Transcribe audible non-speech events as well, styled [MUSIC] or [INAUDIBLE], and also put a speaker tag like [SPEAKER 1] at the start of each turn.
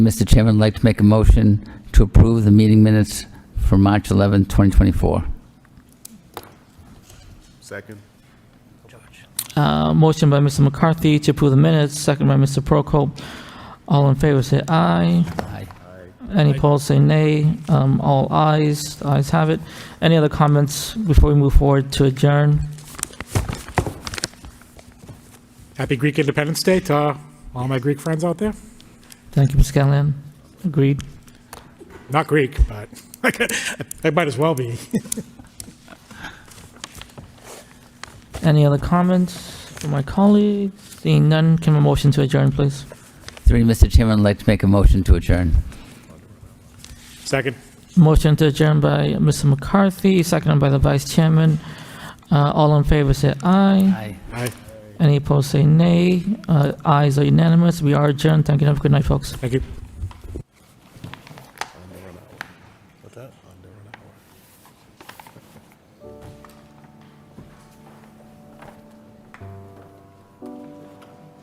[SPEAKER 1] Mr. Chairman, I'd like to make a motion to approve the meeting minutes for March 11, 2024.
[SPEAKER 2] Second.
[SPEAKER 3] Uh, Motion by Mr. McCarthy to approve the minutes, second by Mr. Prokop. All in favor, say aye.
[SPEAKER 1] Aye.
[SPEAKER 3] Any opposed, say nay. Um, All ayes, the ayes have it. Any other comments before we move forward to adjourn?
[SPEAKER 4] Happy Greek Independence Day to all my Greek friends out there.
[SPEAKER 3] Thank you, Ms. Callahan. Agreed.
[SPEAKER 4] Not Greek, but [LAUGHS] I might as well be.
[SPEAKER 3] Any other comments from my colleagues? Seeing none, can I have a motion to adjourn, please?
[SPEAKER 1] Three, Mr. Chairman, I'd like to make a motion to adjourn.
[SPEAKER 4] Second.
[SPEAKER 3] Motion to adjourn by Mr. McCarthy, seconded by the Vice Chairman. Uh, All in favor, say aye.
[SPEAKER 1] Aye.
[SPEAKER 4] Aye.
[SPEAKER 3] Any opposed, say nay. Uh, Ayes are unanimous. We are adjourned. Thank you. and Have a good night, folks.
[SPEAKER 4] Thank you.
[SPEAKER 2] What's that? I'm doing it.